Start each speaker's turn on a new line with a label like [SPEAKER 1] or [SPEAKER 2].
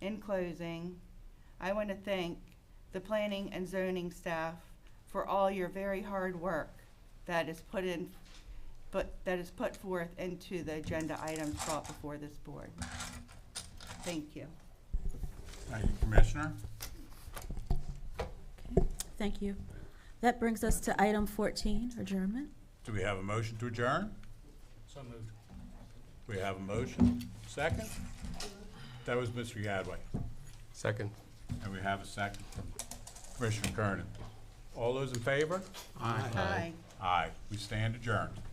[SPEAKER 1] In closing, I want to thank the planning and zoning staff for all your very hard work that is put in, but, that is put forth into the agenda items brought before this board. Thank you.
[SPEAKER 2] Thank you, Commissioner.
[SPEAKER 3] Thank you. That brings us to item 14, adjournment.
[SPEAKER 2] Do we have a motion to adjourn?
[SPEAKER 4] So moved.
[SPEAKER 2] We have a motion. Second? That was Mr. Yadway.
[SPEAKER 5] Second.
[SPEAKER 2] And we have a second from Commissioner Kernan. All those in favor?
[SPEAKER 1] Aye.
[SPEAKER 2] Aye. We stand adjourned.